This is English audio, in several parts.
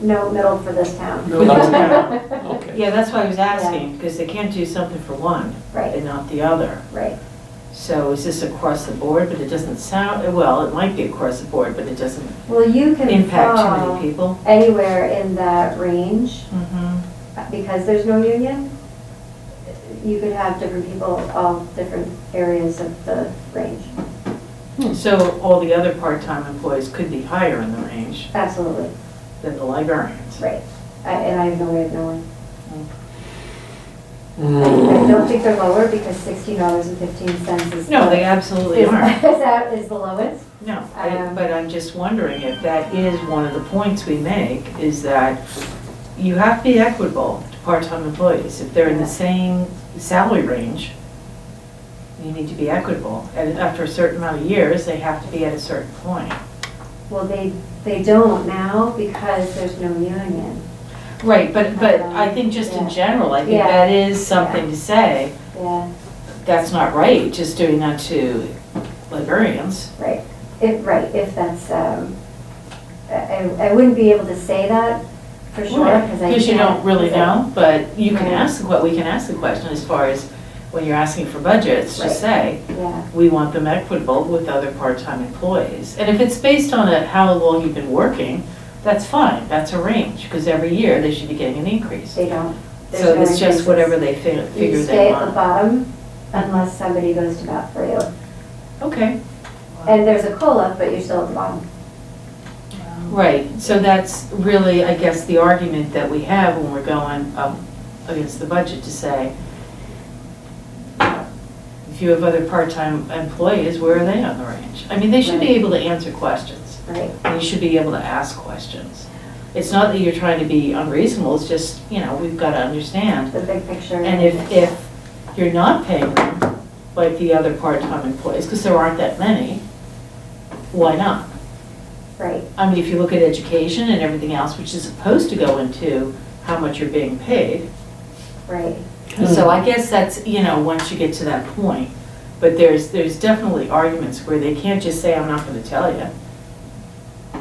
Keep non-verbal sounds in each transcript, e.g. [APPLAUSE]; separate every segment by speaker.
Speaker 1: No, middle for this town.
Speaker 2: Middle for town.
Speaker 1: [LAUGHS]
Speaker 2: Okay.
Speaker 3: Yeah, that's why I was asking, because they can't do something for one
Speaker 1: Right,
Speaker 3: and not the other.
Speaker 1: right.
Speaker 3: So is this across the board, but it doesn't sound, well, it might be across the board, but it doesn't
Speaker 1: Well, you can
Speaker 3: impact too many
Speaker 1: fall
Speaker 3: people.
Speaker 1: anywhere in that range
Speaker 3: Mhm.
Speaker 1: because there's no union. You could have different people, all different areas of the range.
Speaker 3: So all the other part-time employees could be higher in the range
Speaker 1: Absolutely,
Speaker 3: than the librarians.
Speaker 1: right. I- And I have no way of knowing. I I
Speaker 2: Mm.
Speaker 1: don't think they're lower because sixteen dollars and fifteen cents is.
Speaker 3: No,
Speaker 1: the-
Speaker 3: they
Speaker 1: [LAUGHS]
Speaker 3: absolutely
Speaker 1: is-
Speaker 3: aren't.
Speaker 1: Is that, is the lowest?
Speaker 3: No, I-
Speaker 1: Um,
Speaker 3: but I'm just wondering if that is one of the points we make, is that you have to be equitable to part-time employees. If they're in the same salary range, you need to be equitable. And after a certain amount of years, they have to be at a certain point.
Speaker 1: Well, they, they don't now because there's no union.
Speaker 3: Right, but, but
Speaker 1: Um,
Speaker 3: I think just in
Speaker 1: yeah.
Speaker 3: general, I think
Speaker 1: Yeah.
Speaker 3: that is something to say,
Speaker 1: Yeah,
Speaker 3: that's not right, just doing that to librarians.
Speaker 1: right. If, right, if that's, um, I, I I wouldn't be able to say that for sure because I.
Speaker 3: Because you don't
Speaker 1: can't-
Speaker 3: really know, but you can
Speaker 1: Right.
Speaker 3: ask, what, we can ask the question as far as when you're asking for budgets, just say,
Speaker 1: Yeah,
Speaker 3: we want them equitable with other part-time employees. And if it's based on a- how long you've been working, that's fine, that's a range, because every year they should be getting an increase.
Speaker 1: they don't. There's
Speaker 3: So
Speaker 1: no
Speaker 3: it's just
Speaker 1: increases.
Speaker 3: whatever they fi- figure
Speaker 1: You stay
Speaker 3: they
Speaker 1: at the
Speaker 3: want.
Speaker 1: bottom unless somebody goes to bat for you.
Speaker 3: Okay,
Speaker 1: And there's a COLA, but you're still at the bottom.
Speaker 3: right, so that's really, I guess, the argument that we have when we're going up against the budget to say, if you have other part-time employees, where are they on the range? I mean, they should be
Speaker 1: Right.
Speaker 3: able to answer questions.
Speaker 1: Right,
Speaker 3: and you should be able to ask questions. It's not that you're trying to be unreasonable, it's just, you know, we've got to understand.
Speaker 1: the big picture.
Speaker 3: And if, if you're not paying them, like the other part-time employees, because there aren't that many, why not?
Speaker 1: Right,
Speaker 3: I mean, if you look at education and everything else, which is supposed to go into how much you're being paid.
Speaker 1: right.
Speaker 2: Hmm.
Speaker 3: So I guess that's, you know, once you get to that point. But there's, there's definitely arguments where they can't just say, I'm not going to tell you.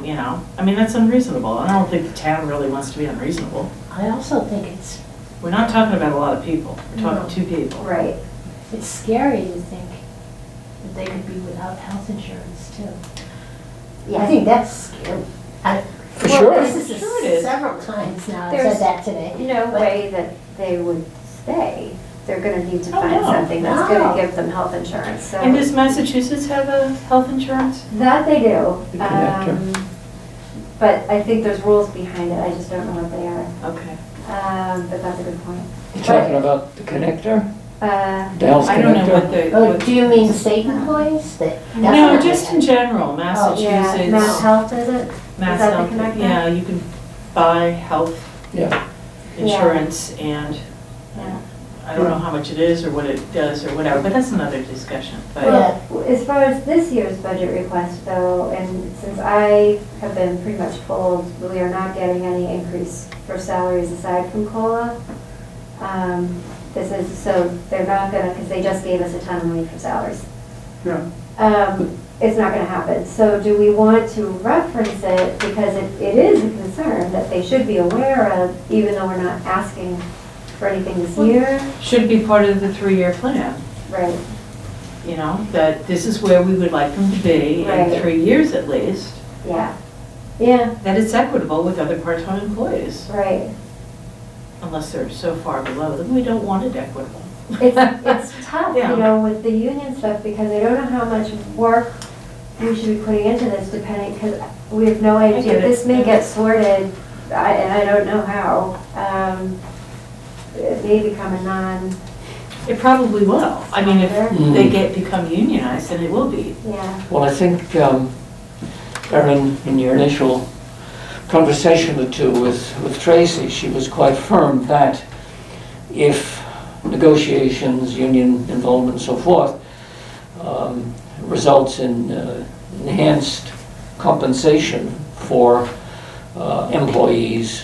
Speaker 3: You know, I mean, that's unreasonable. and I don't think the town really wants to be unreasonable.
Speaker 4: I also think it's,
Speaker 3: We're not talking about a lot of people, we're
Speaker 4: No.
Speaker 3: talking two people.
Speaker 1: Right,
Speaker 4: it's scary to think that they could be without health insurance too. Yeah, I think that's scary. I-
Speaker 2: For
Speaker 4: well,
Speaker 2: sure.
Speaker 4: This is
Speaker 3: Sure it
Speaker 4: the
Speaker 3: is.
Speaker 4: several times now I've
Speaker 1: There's-
Speaker 4: said that today.
Speaker 1: no
Speaker 4: But-
Speaker 1: way that they would stay. They're gonna need to
Speaker 3: Oh,
Speaker 1: find
Speaker 3: no.
Speaker 1: something that's gonna
Speaker 4: No.
Speaker 1: give them health insurance, so.
Speaker 3: And does Massachusetts have a health insurance?
Speaker 1: That they
Speaker 2: You
Speaker 1: do.
Speaker 2: can act,
Speaker 1: um, But I think there's rules behind it, I just don't know what they are.
Speaker 3: Okay.
Speaker 1: Um, But that's a good point.
Speaker 2: You talking about the connector,
Speaker 1: Uh,
Speaker 2: Dell's
Speaker 3: I don't know what
Speaker 2: connector?
Speaker 3: the.
Speaker 4: Oh,
Speaker 3: what-
Speaker 4: do you mean state employees that? that's
Speaker 3: No,
Speaker 4: not-
Speaker 3: just in general,
Speaker 1: Oh, Yeah, Mount
Speaker 3: Massachusetts,
Speaker 1: Health, is it?
Speaker 3: Mass
Speaker 1: that the
Speaker 3: Health,
Speaker 1: connector?
Speaker 3: yeah, you can buy health
Speaker 2: Yeah,
Speaker 1: Yeah.
Speaker 3: insurance and
Speaker 1: Yeah.
Speaker 3: I don't know how much it is or what it does or whatever, but that's another discussion. But
Speaker 4: Yeah.
Speaker 1: Well, as far as this year's budget request though, and since I have been pretty much told we are not getting any increase for salaries aside from COLA, um, this is, so they're not gonna, because they just gave us a ton of money for salaries.
Speaker 2: Yeah.
Speaker 1: Um, It's not gonna happen. So do we want to reference it because it it is a concern that they should be aware of, even though we're not asking for anything this year?
Speaker 3: should be part of the three-year plan,
Speaker 1: Right,
Speaker 3: you know, that this is where we would like them to be in
Speaker 1: Right.
Speaker 3: three years at least,
Speaker 1: yeah. Yeah,
Speaker 3: that it's equitable with other part-time employees,
Speaker 1: right.
Speaker 3: unless they're so far below them, we don't want it equitable. [LAUGHS]
Speaker 1: It's, it's tough,
Speaker 3: Yeah.
Speaker 1: you know, with the union stuff, because I don't know how much work we should be putting into this depending, because we have no idea.
Speaker 3: get it.
Speaker 1: This may get sorted, I- and I don't know how. Um, It may become a non,
Speaker 3: It probably will. I mean, if
Speaker 1: Mm.
Speaker 3: they get, become unionized, then it will be.
Speaker 1: yeah,
Speaker 2: well, I think, um, Erin, in your initial conversation with two with, with Tracy, she was quite firm that if negotiations, union involvement and so forth, um, results in uh, enhanced compensation for uh, employees,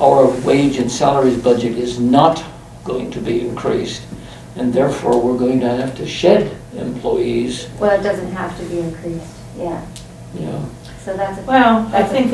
Speaker 2: our wage and salaries budget is not going to be increased, and therefore, we're going to have to shed employees,
Speaker 1: well, it doesn't have to be increased, yeah.
Speaker 2: you know,
Speaker 1: So that's a.
Speaker 3: Well, I
Speaker 1: that's a-
Speaker 3: think